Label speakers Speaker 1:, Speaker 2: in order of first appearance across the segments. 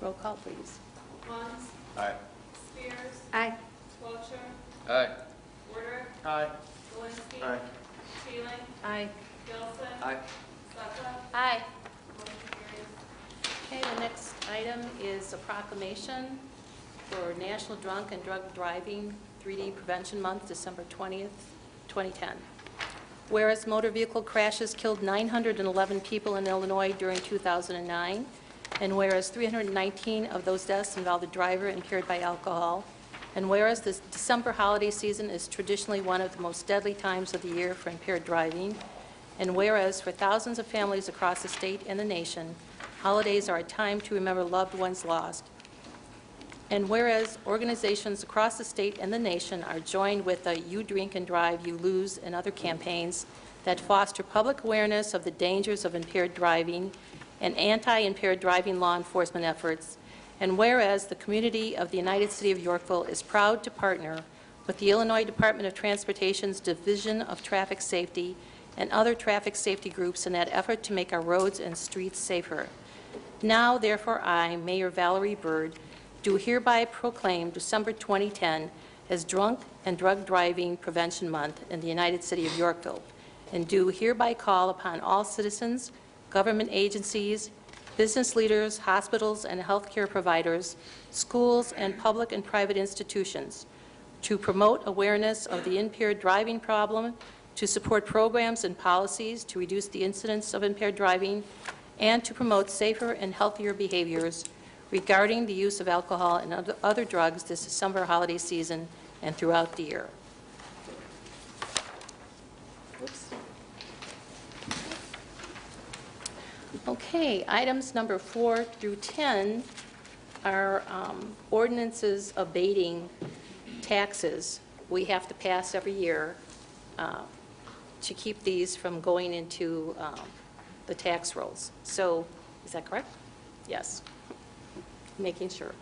Speaker 1: Roll call, please.
Speaker 2: Muns,
Speaker 3: Aye.
Speaker 2: Spears,
Speaker 1: Aye.
Speaker 2: Wiltshire,
Speaker 3: Aye.
Speaker 2: Warder,
Speaker 3: Aye.
Speaker 2: Walensky.
Speaker 3: Aye.
Speaker 2: Teeling,
Speaker 1: Aye.
Speaker 2: Gilson.
Speaker 3: Aye.
Speaker 2: Sutcliffe.
Speaker 1: Aye.
Speaker 2: Motion carries.
Speaker 1: Okay, the next item is a proclamation for National Drunk and Drug Driving 3D Prevention Month, December 20th, 2010. Whereas motor vehicle crashes killed 911 people in Illinois during 2009, and whereas 319 of those deaths involved a driver impaired by alcohol, and whereas the December holiday season is traditionally one of the most deadly times of the year for impaired driving, and whereas for thousands of families across the state and the nation, holidays are a time to remember loved ones lost, and whereas organizations across the state and the nation are joined with the You Drink and Drive, You Lose and other campaigns that foster public awareness of the dangers of impaired driving and anti-impaired driving law enforcement efforts, and whereas the community of the United City of Yorkville is proud to partner with the Illinois Department of Transportation's Division of Traffic Safety and other traffic safety groups in that effort to make our roads and streets safer. Now, therefore, I, Mayor Valerie Byrd, do hereby proclaim December 2010 as Drunk and Drug Driving Prevention Month in the United City of Yorkville, and do hereby call upon all citizens, government agencies, business leaders, hospitals and healthcare providers, schools, and public and private institutions to promote awareness of the impaired driving problem, to support programs and policies to reduce the incidence of impaired driving, and to promote safer and healthier behaviors regarding the use of alcohol and other- other drugs this December holiday season and throughout the year. Oops. Okay, items number four through 10 are um, ordinances abating taxes we have to pass every year uh, to keep these from going into um, the tax rolls. So, is that correct? Yes. Making sure.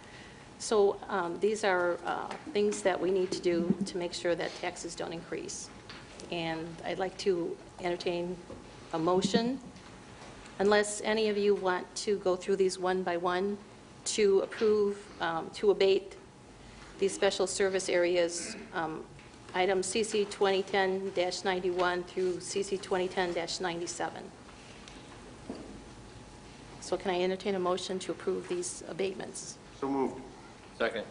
Speaker 1: So um, these are uh, things that we need to do to make sure that taxes don't increase. And I'd like to entertain a motion unless any of you want to go through these one by one, to approve, um, to abate these special service areas, um, item CC 2010-91 through CC 2010-97. So can I entertain a motion to approve these abatements?
Speaker 3: So moved. Second.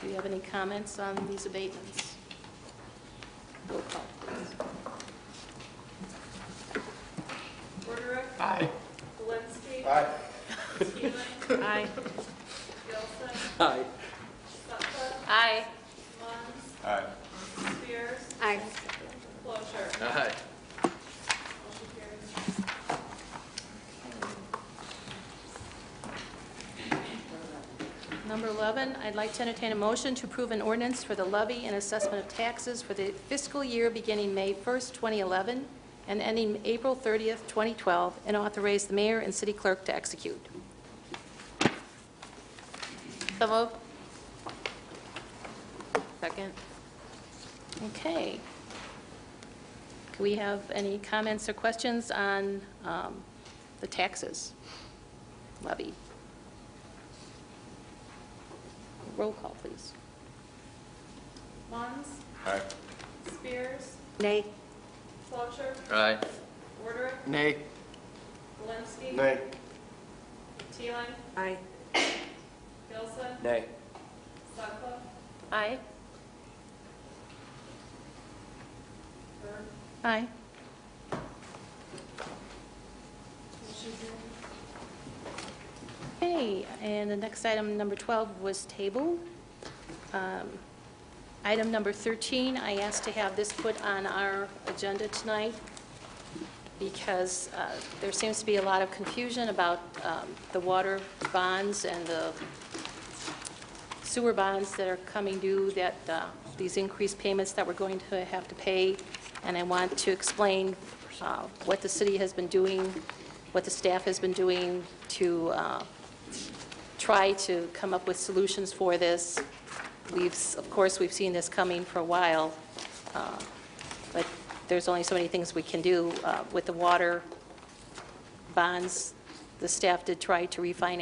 Speaker 1: Do you have any comments on these abatements? Roll call, please.
Speaker 2: Warder.
Speaker 3: Aye.
Speaker 2: Walensky.
Speaker 3: Aye.
Speaker 2: Teeling,
Speaker 1: Aye.
Speaker 2: Gilson,
Speaker 3: Aye.
Speaker 2: Sutcliffe,
Speaker 1: Aye.
Speaker 2: Muns,
Speaker 3: Aye.
Speaker 2: Spears,
Speaker 1: Aye.
Speaker 2: Wiltshire.
Speaker 3: Aye.
Speaker 2: Motion carries.
Speaker 1: Number 11, I'd like to entertain a motion to approve an ordinance for the levy and assessment of taxes for the fiscal year beginning May 1st, 2011, and ending April 30th, 2012, and authorize the mayor and city clerk to execute. So moved. Second. Okay. Do we have any comments or questions on um, the taxes levy? Roll call, please.
Speaker 2: Muns,
Speaker 3: Aye.
Speaker 2: Spears,
Speaker 1: Nay.
Speaker 2: Wiltshire,
Speaker 3: Aye.
Speaker 2: Warder,
Speaker 3: Nay.
Speaker 2: Walensky.
Speaker 3: Nay.
Speaker 2: Teeling,
Speaker 1: Aye.
Speaker 2: Gilson,
Speaker 3: Nay.
Speaker 2: Sutcliffe,
Speaker 1: Aye.
Speaker 2: Byrd.
Speaker 1: Aye.
Speaker 2: Motion carries.
Speaker 1: Okay, and the next item, number 12, was tabled. Um, Item number 13, I asked to have this put on our agenda tonight because uh, there seems to be a lot of confusion about um, the water bonds and the sewer bonds that are coming due, that uh, these increased payments that we're going to have to pay, and I want to explain uh, what the city has been doing, what the staff has been doing to uh, try to come up with solutions for this. We've, s- of course, we've seen this coming for a while, uh, but there's only so many things we can do uh, with the water bonds. The staff did try to refinance